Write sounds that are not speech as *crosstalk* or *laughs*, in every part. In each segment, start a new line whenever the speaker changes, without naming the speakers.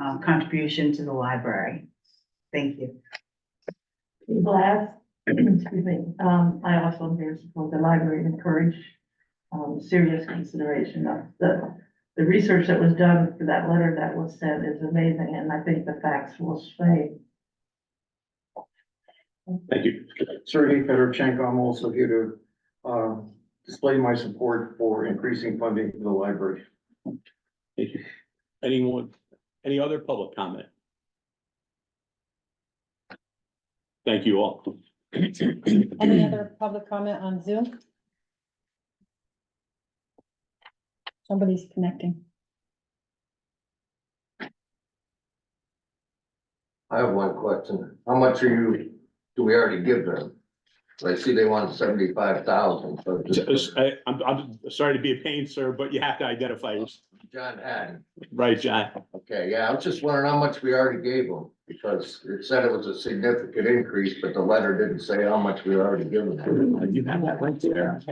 um, contribution to the library. Thank you.
Last, *clears throat* excuse me, um, I also am here to support the library and encourage um, serious consideration of the, the research that was done for that letter that was sent is amazing, and I think the facts will sway.
Thank you.
Sergey Fedorchenko, I'm also here to uh, display my support for increasing funding for the library.
Thank you. Anyone, any other public comment? Thank you all. *clears throat*
Any other public comment on Zoom? Somebody's connecting.
I have one question. How much are you, do we already give them? I see they want seventy-five thousand, so just,
I, am I'm sorry to be a pain, sir, but you have to identify, yourself.
John Hatton.
right, John?
Okay, yeah, I was just wondering how much we already gave them, because it said it was a significant increase, but the letter didn't say how much we already given them.
You have that right there.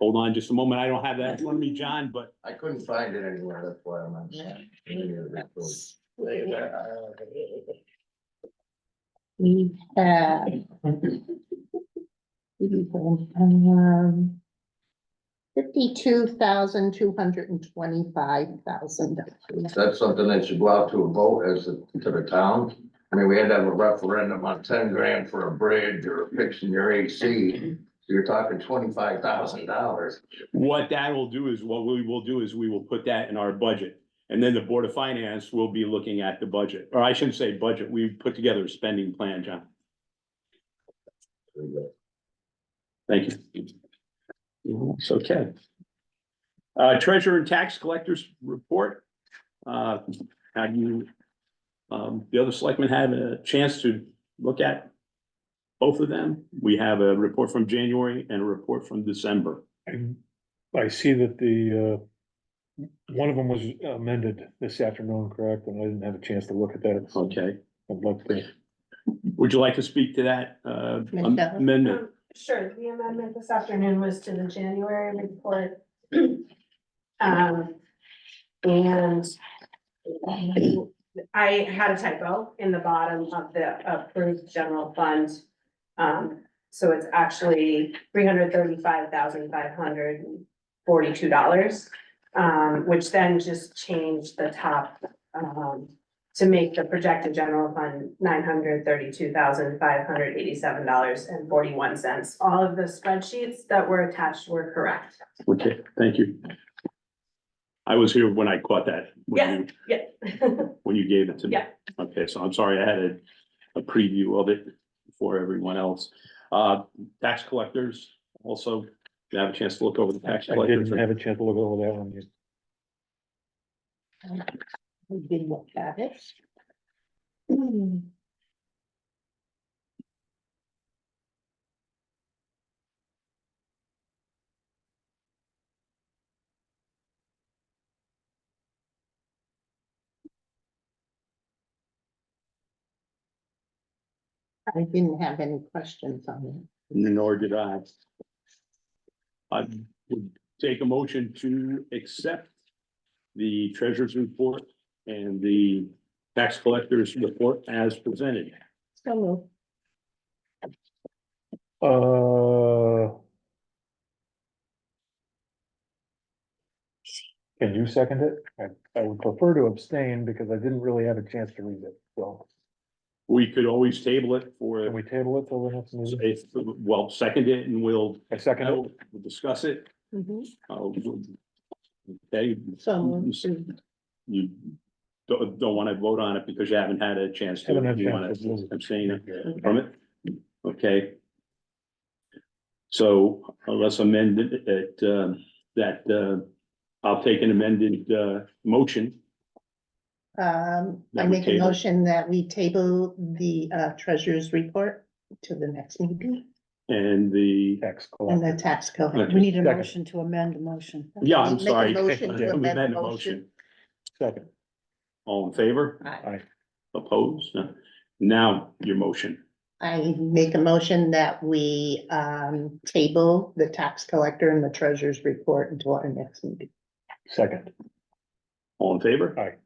Hold on just a moment. I don't have that in front of me, John, but
I couldn't find it anywhere, that's why I'm on.
We have. um, Fifty-two thousand, two hundred and twenty-five thousand.
That's something that should go out to a vote as a- to the town. I mean, we had to have a referendum on ten grand for a bridge or fixing your AC. So you're talking twenty-five thousand dollars.
what that will do is, what we will do is we will put that in our budget. And then the Board of Finance will be looking at the budget, or I shouldn't say budget, we put together a spending plan, John. Thank you. Yeah, It's okay. Uh, treasurer and tax collectors report. Uh, have you, um, the other selectmen had a chance to look at both of them? We have a report from January and a report from December.
And I see that the, uh, one of them was amended this afternoon, correct? And I didn't have a chance to look at that. so
Okay,
I'd like to.
would you like to speak to that, uh,
Michelle?
amendment?
Sure, the amendment this afternoon was to the January report. *clears throat* Um, and I had a typo in the bottom of the approved general fund. Um, so it's actually three hundred thirty-five thousand five hundred forty-two dollars. Um, which then just changed the top, um, to make the projected general fund nine hundred thirty-two thousand five hundred eighty-seven dollars and forty-one cents. All of the spreadsheets that were attached were correct.
Okay, thank you. I was here when I caught that. when
Yeah,
you-
yeah. *laughs*
When you gave it to me.
Yeah.
Okay, so I'm sorry, I had a, a preview of it before everyone else. Uh, tax collectors also, you have a chance to look over the tax
I
collectors.
didn't have a chance to look over that one. yet.
We did look at it. Hmm. I didn't have any questions on it.
Nor did I. I would take a motion to accept the treasurer's report and the tax collector's report as presented.
So moved.
Uh. Can you second it? I, I would prefer to abstain because I didn't really have a chance to read it. So
We could always table it for,
can we table it till the next meeting?
if- well, second it and we'll,
I second it.
we'll discuss it.
Mhm.
Uh, Okay,
So moved.
you don't, don't want to vote on it because you haven't had a chance to.
Haven't had a
You
chance
want
to read
to
it.
abstain from it? Okay. So uh, let's amend it, it, uh, that, uh, I'll take an amended, uh, motion.
Um, I
That we
make a
table.
motion that we table the uh treasurer's report to the next meeting
And the,
Tax
and
collector.
the tax code.
Okay.
We need a
Second.
motion to amend the motion.
yeah, I'm
Make a
sorry. *laughs*
motion to amend the
Amend the
motion.
Second.
All in favor?
Aye.
Opposed? No. Now, your motion.
I make a motion that we um table the tax collector and the treasurer's report until our next meeting.
Second.
All in favor?
Aye.